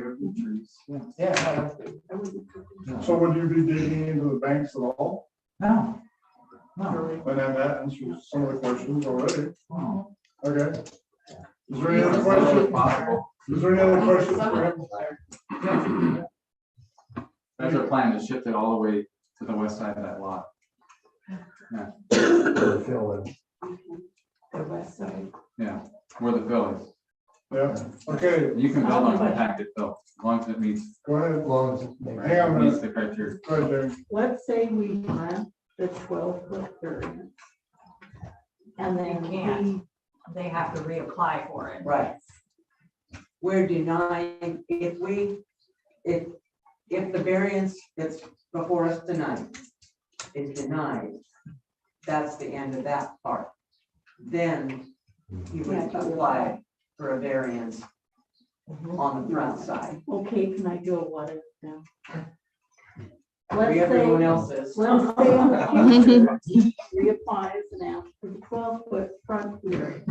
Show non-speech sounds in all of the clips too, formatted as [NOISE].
trees. Yeah, So would you be digging into the banks at all? no. No. And then that answers some of the questions already. no. Okay. Is there any other question? Is there any other questions for him? That's our plan, to shift it all the way to the west side of that lot. The west side. Yeah, where the fill is. Yeah, okay, You can build on compacted fill, as long as it meets, go ahead. Hang on a meets minute. the criteria. Go ahead, James. Let's say we want the twelve foot variance. And They then can't. we, They have to reapply for it. right. We're denying, if we, if, if the variance that's before us tonight is denied, that's the end of that part. Then you would apply for a variance on the front side, Okay, can I do a what if now? Let's where everyone say, else is. let's say in the future, [LAUGHS] he reapplies and asks for twelve foot front rear.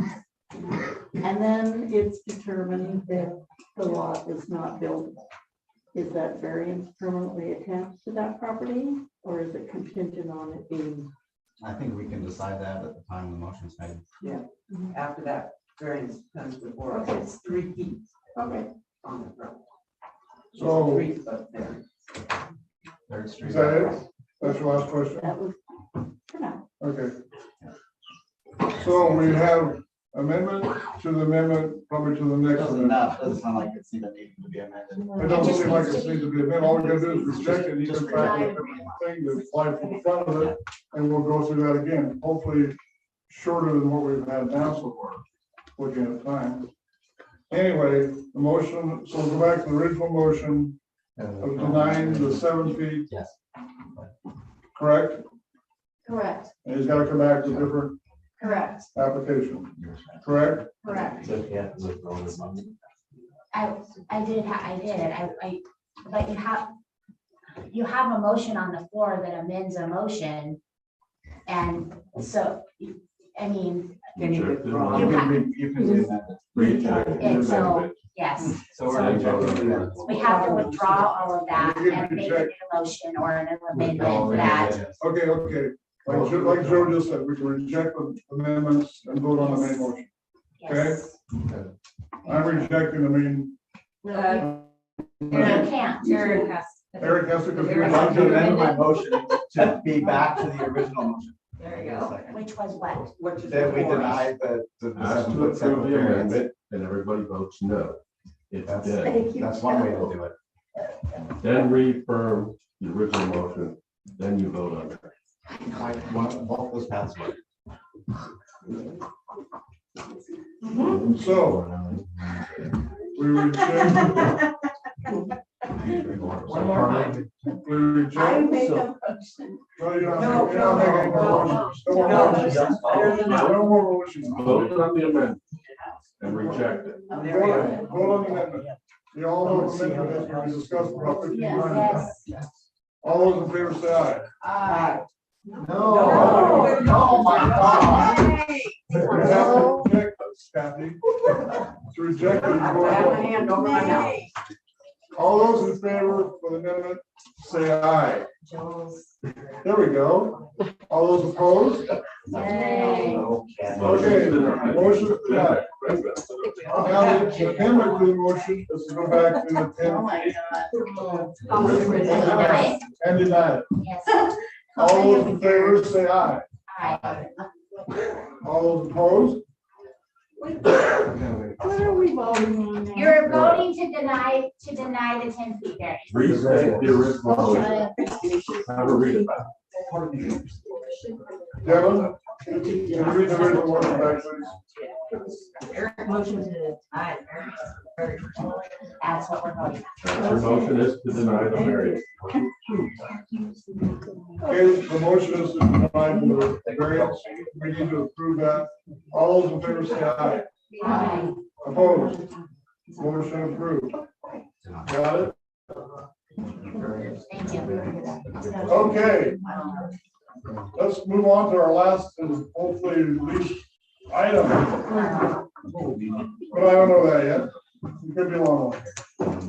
And then it's determined that the lot is not buildable. Is that variance permanently attached to that property or is it contingent on it being? I think we can decide that at the time the motion's made. after that variance comes before us, it's three feet Okay. on the front. It's So- Three foot there. Third Street. Is that it? That's your last question? That was, for now. Okay. So we have amendment to the amendment, probably to the next Doesn't amendment. not, doesn't sound like it's even needed to be amended. It doesn't seem like it needs to be amended. All we gotta do is reject it, you can try to amend the thing to apply for the front of it, and we'll go through that again, hopefully shorter than what we've had now so far, looking at time. Anyway, the motion, so go back to the original motion of denying the seven feet, Yes. correct? Correct, And he's gotta come back to a different correct, application, correct? correct. yeah. I, I did, ha- I did, I, I, but you have, you have a motion on the floor that amends a motion. And so, I mean, Then you withdraw. You can, you can do that. and so, yes, So we're rejecting that. we have to withdraw all of that and make a new motion or an amendment that, Okay, okay, like Joe, like Joe just said, we can reject the amendments and vote on the main motion. yes. I'm rejecting the main, The You can't, Jared has. Eric has to. I'd Eric like has to amend confirm. my motion to be back to the original motion. There you go. which was what? What you Then we before us. deny the, the the Ask seven to foot approve setback the variance. amendment, and everybody votes no. It's That's, dead. that's one way to do it. Then reaffirm the original motion, then you vote on it. Like, one, both those paths work. So, we reject, One more time. we reject. I make No, a you motion. don't No, have to- you no, don't have any no, more no. motions. No more No, motions. this is better than that. No more motions. Vote on the amendment and reject it. Oh, there we Vote go. on- vote on the amendment. You all Oh, know the amendment has been discussed for about fifteen minutes. Yes, All those in favor say aye. Aye. No, no, Oh my God. You have to reject this, Kathy. [LAUGHS] It's rejected. I have my hand over my mouth. All those in favor for the amendment, say aye. Joel's. There we go. All those opposed? Okay, motion denied. Now, the amendment to the motion is to go back to the Oh, ten my God. Yes. and deny it. yes. All those in favor, say aye. Aye. All those opposed? What are we voting on now? You're voting to deny, to deny the ten feet variance. Restate the original motion. Uh, Have a read about Devon? Can you read the original motion back, please? Eric motioned to deny. Eric. That's what we're voting. it. Your motion is to deny the variance. Okay, the motion is to deny the variance. We need to approve that. All those in favor, say aye. Aye. Opposed? Motion approved. Got it? Thank you. Okay. Let's move on to our last and hopefully least item, but I don't know that yet. It could be a long one.